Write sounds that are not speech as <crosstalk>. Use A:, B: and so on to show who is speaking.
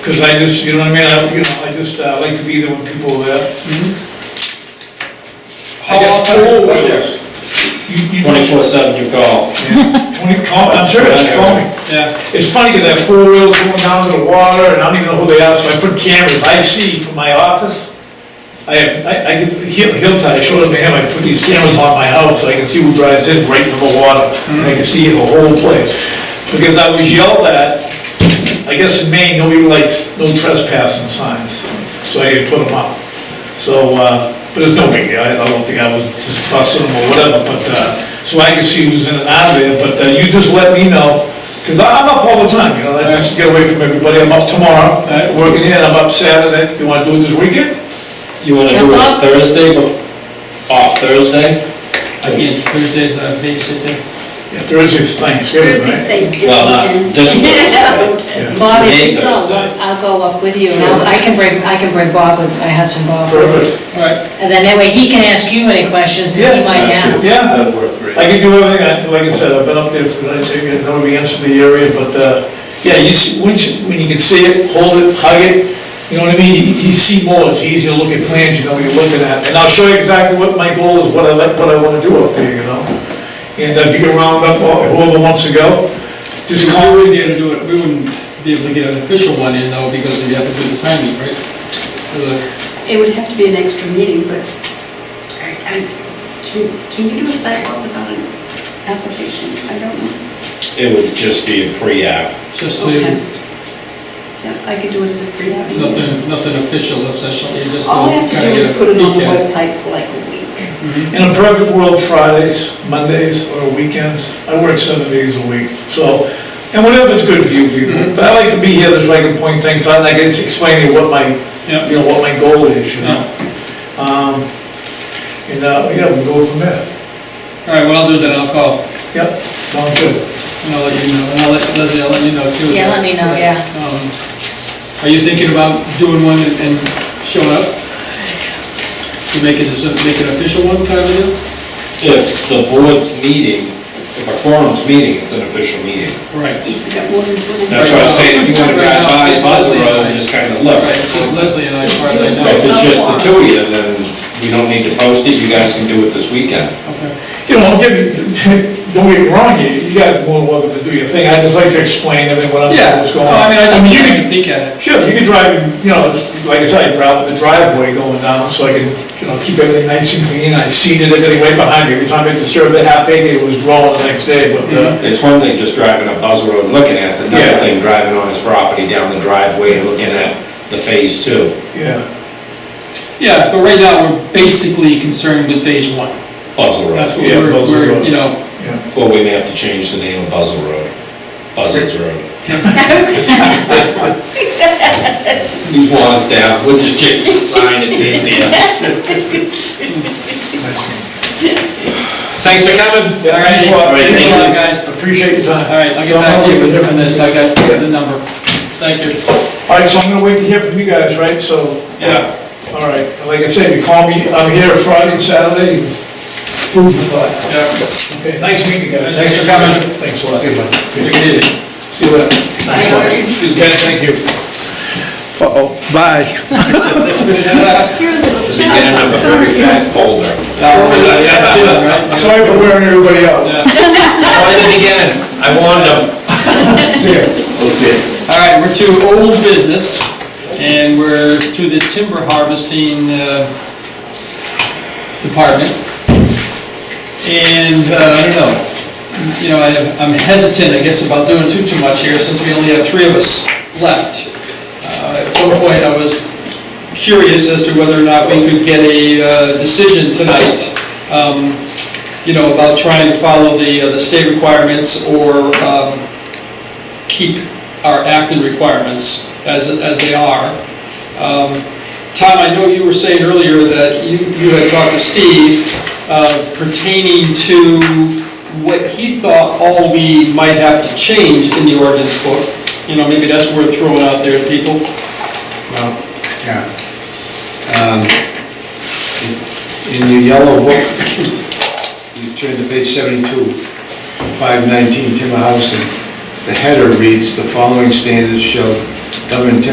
A: Because I just, you know what I mean, I, you know, I just, uh, like to be there when people are there. How
B: I get
A: often? Oh,
B: full with
A: yes. You, you just,
B: Twenty-four seven, you call.
A: twenty, call, I'm serious, call me.
B: Yeah.
A: It's funny, that I have four wheels going down to the water, and I don't even know who they are, so I put cameras, I see from my office. I have, I, I get, Hill- Hilltide, I showed them to him, I put these cameras on my house, so I can see who drives in right from the water, and I can see the whole place. Because I was yelled at, I guess in Maine, nobody likes, no trespassing signs, so I didn't put them up. So, uh, but it's no big deal, I I don't think I was just fussing them or whatever, but, uh, so I can see who's in and out of there, but uh, you just let me know, because I'm up all the time, you know, I just get away from everybody, I'm up tomorrow, uh, working here, I'm up Saturday, you wanna do it this weekend?
B: You wanna do it Thursday, but off Thursday?
C: Again, Thursdays, I'm babysitting.
A: Yeah, Thursday's Thanksgiving,
D: Thursday's
A: right?
D: Thanksgiving
B: Well, not
D: weekend.
E: <laughs>
B: this Thursday.
A: Yeah.
E: Bob, if
B: May
E: you go,
B: Thursday.
E: I'll go up with you, and I'll- I can bring, I can bring Bob with, my husband Bob.
A: Perfect,
C: Right.
E: And then that way he can ask you any questions that he
A: Yeah,
E: might have.
A: yeah,
B: That'd work great.
A: I can do everything, I- like I said, I've been up there for, I think, I know the answer to the area, but, uh, yeah, you see, once, you- when you can see it, hold it, hug it, you know what I mean, you, you see more, it's easier to look at plans, you know what you're looking at, and I'll show you exactly what my goal is, what I like, what I wanna do up there, you know? And if you can round up all- whoever wants to go, just
C: Just
A: call me,
C: we wouldn't be able to do it, we wouldn't be able to get an official one in though, because we have to do the timing, right? uh, For the-
D: It would have to be an extra meeting, but I, I, can, can you do a sidewalk without an application? I don't know.
B: It would just be a pre-app.
C: Just to,
D: Okay. Yeah, I could do it as a pre-app. meeting.
C: nothing, nothing official essentially, just.
D: All I have to do
C: kinda
D: is
C: get a
D: put it on
C: peek
D: the
C: at
D: website for like a week.
A: in a perfect world, Fridays, Mondays, or weekends, I work seven days a week, so, and whatever's good for you
C: Mm-hmm.
A: people, but I like to be here, so I can point things out, and I can explain to you what my
C: Yeah.
A: you know, what my goal is, you
C: Yeah.
A: know? Um, And, uh, yeah, we'll go from there.
C: All right, what I'll do then, I'll call,
A: Yep, sounds good.
C: and I'll let you know, and I'll let Leslie, I'll let you know too.
E: Yeah, let me know, yeah.
C: Um, Are you thinking about doing one and and showing up? To make it, as a- make it official one kind of deal?
B: If the board's meeting, if a quorum's meeting, it's an official meeting.
C: Right.
D: If you got more than twenty-
B: That's what I was saying, if you wanna drive by, Buzzell Road, just kinda look.
C: Right, it's just Leslie and I, as far as I know.
B: If it's just the two of you, then we don't need to post it, you guys can do it this weekend.
C: Okay.
A: You know, give me, <laughs> don't get me wrong, you, you guys are more than welcome to do your thing, I just like to explain everything, what I'm,
C: Yeah,
A: what's
C: no,
A: going on.
C: I mean, I just
A: you
C: wanted to
A: can-
C: peek at it.
A: Sure, you can drive, you know, it's- like I said, I drive with the driveway going down, so I can, you know, keep everything nice and clean, I seeded everything right behind me, every time I disturbed the half acre, it was growing the next day, but, uh,
B: It's one thing just driving up Buzzell Road looking at, it. it's another
A: Yeah.
B: thing driving on his property down the driveway and looking at the phase two.
C: Mm-hmm.
A: yeah.
C: Yeah, but right now, we're basically concerned with phase one.
B: Buzzell Road.
C: That's what
A: Yeah,
C: we're,
A: those are
C: we're,
A: the-
C: you know,
A: Yeah.
B: Well, we may have to change the name of Buzzell Road. Buzzards Road.
E: <laughs>
A: <laughs>
B: He's one staff, we'll just change the sign, it's easier. Thanks for coming.
A: Yeah, thanks a lot.
B: All right,
C: thanks a lot, guys.
A: Appreciate your time.
C: All right, I'll
A: So
C: get
A: I'm
C: back to
A: hoping
C: you
A: hear
C: on
A: from
C: this,
A: you.
C: I got the number. Thank you.
A: All right, so I'm gonna wait to hear from you guys, right, so.
C: Yeah.
A: All right, like I said, you call me, I'm here Friday and Saturday, prove the thought.
C: Yeah.
A: Okay, nice meeting you guys.
C: Thanks for coming.
A: Thanks a lot. See you later.
C: Take it easy.
A: See you later. Okay, thank you.
F: Uh-oh, bye.
B: Does he get in a very fat folder?
A: Sorry for wearing everybody out.
B: Try it again, I warned him.
A: See ya.
B: We'll see it.
C: All right, we're to old business, and we're to the timber harvesting uh, department. And, uh, I don't know, you know, I- I'm hesitant, I guess, about doing too, too much here, since we only have three of us left. Uh, At some point, I was curious as to whether or not we could get a uh, decision tonight, um, you know, about trying to follow the, uh, the state requirements or um, keep our Acton requirements as, as they are. Um, Tom, I know you were saying earlier that you, you had talked to Steve uh, pertaining to what he thought all we might have to change in the ordinance book. You know, maybe that's worth throwing out there to people.
G: Well, yeah. Um, In your yellow book, you turn to page 72, 519 timber harvesting. The header reads, "The following standards shall govern timber